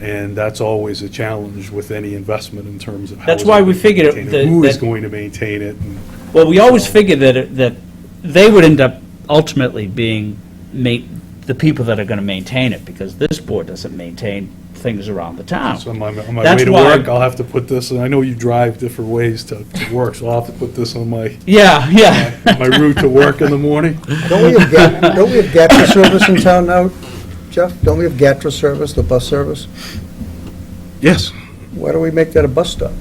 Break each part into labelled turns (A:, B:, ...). A: And that's always a challenge with any investment in terms of how
B: That's
A: is it
B: why we
A: going to
B: figured
A: maintain
B: that-
A: Who is
B: that-
A: going to maintain it? and-
B: Well, we always figured that, it- that they would end up ultimately being ma, the people that are gonna maintain it, because this board doesn't maintain things around the town.
A: So on my, on my
B: Oh. That's
A: way to
B: why-
A: work, I'll have to put this, and I know you drive different ways to, to work, so I'll have to put this on my,
B: Yeah, yeah.
A: my route to work in the morning.
C: Don't we have, Gat- don't we have GATRA service in town now, Jeff? Don't we have GATRA service, the bus service?
A: Yes.
C: Why don't we make that a bus stop?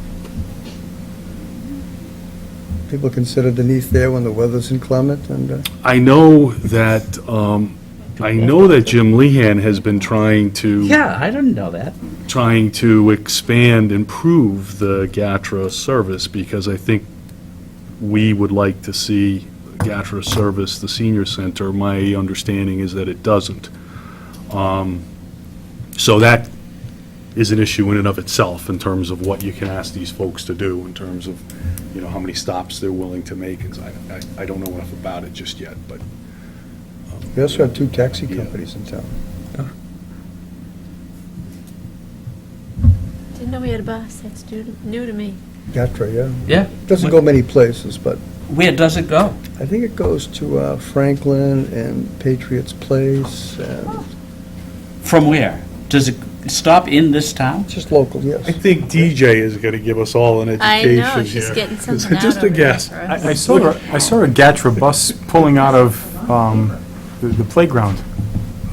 C: People consider Denise there when the weather's inclement, and, uh,
A: I know that, um, I know that Jim Lehan has been trying to.
B: Yeah, I didn't know that.
A: trying to expand, improve the GATRA service, because I think we would like to see GATRA service the senior center. My understanding is that it doesn't. Um, So that is an issue in and of itself, in terms of what you can ask these folks to do, in terms of, you know, how many stops they're willing to make. It's- I- I I don't know enough about it just yet, but
C: we also have two taxi companies in town.
D: Didn't know we had a bus, that's new to, new to me.
C: GATRA, yeah.
B: Yeah.
C: Doesn't go many places, but
B: Where does it go?
C: I think it goes to uh, Franklin and Patriots Place, and
B: From where? Does it stop in this town?
C: it's just local,
A: I
C: yes.
A: think DJ is going to give us all an
D: I
A: education
D: know,
A: here.
D: she's getting something out
A: Just a
D: over there
A: guess.
D: for us.
E: I I saw, the- I saw a Gatra bus pulling out of um, the the playground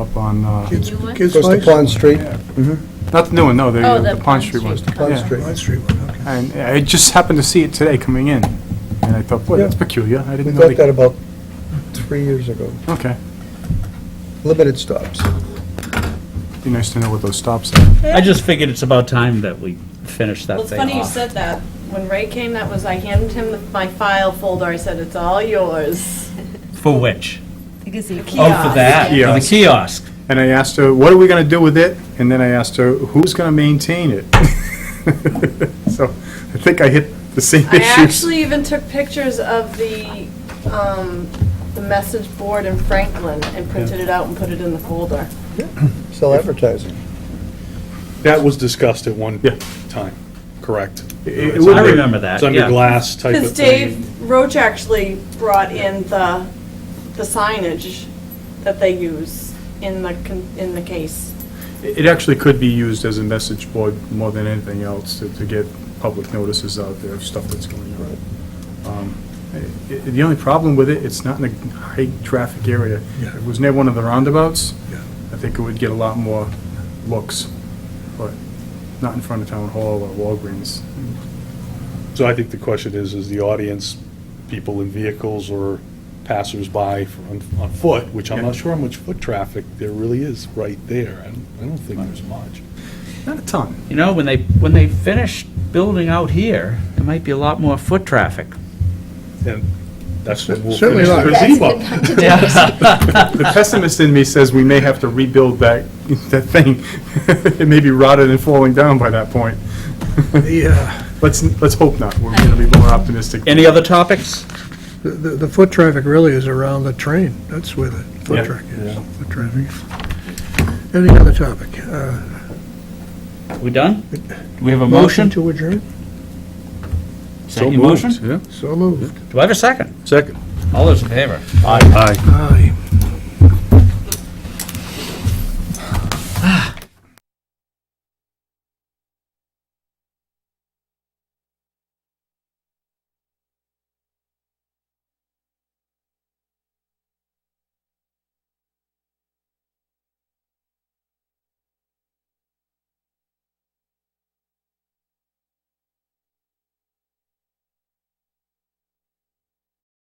E: up on, uh,
D: New one?
C: Goes to Pond Street,
E: not the new one, no, the
D: Oh,
E: the Pond Street one.
C: Pond
E: Yeah.
C: Street.
E: And I just happened to see it today coming in, and I thought, boy, that's
C: Yeah.
E: peculiar, I
C: We
E: didn't know
C: got that
E: they...
C: about three years ago.
E: Okay,
C: Limited stops.
E: be nice to know what those stops are.
B: I just figured it's about time that we finish that
F: Well, it's
B: thing
F: funny you
B: off.
F: said that. When Ray came, that was, I handed him my file folder, I said, it's all yours.
B: For which? Oh,
F: Kiosk.
B: for that, for the
E: Kiosk.
B: kiosk.
E: And I asked her, what are we gonna do with it? And then I asked her, who's gonna maintain it? So I think I hit the same
F: I
E: issues.
F: actually even took pictures of the, um, the message board in Franklin and printed it out and put it in the folder.
C: Sell advertising.
A: That was discussed at one
E: Yeah.
A: time, correct?
E: It- it
A: It's
E: would
A: under-
E: be- I
B: remember that,
A: It's under
B: yeah.
A: glass type
F: Because
A: of
F: Dave
A: thing.
F: Roach actually brought in the, the signage that they use in the, con- in the case.
E: It actually could be used as a message board more than anything else to, to get public notices out there of stuff that's going on. Um, i- i- The only problem with it, it's not in a high-traffic area. If it was near one of the roundabouts, I think it would get a lot more looks, but not in front of Town Hall or Walgreens.
A: So I think the question is, is the audience, people in vehicles or passersby for- on on foot, which I'm
E: Yeah.
A: not sure how much foot traffic there really is right there. I don't- I don't think there's much.
E: Not a ton.
B: You know, when they, when they finish building out here, there might be a lot more foot traffic.
A: And that's what we'll
C: Certainly
A: finish the
C: not.
A: gazebo.
E: The pessimist in me says we may have to rebuild that, that thing. It may be rotted and falling down by that point.
G: The,
E: Let's, let's hope not. We're going to be more optimistic.
B: Any other topics?
G: the, the foot traffic really is around the train, that's where the
E: Yeah.
G: foot traffic is, foot traffic. Any other topic? Uh,
B: We done? Do we have a motion?
G: To adjourn?
B: Is that your motion?
A: yeah.
G: So moved.
B: Do I have a second?
A: Second.
B: All those in favor?
A: Aye.
G: Aye.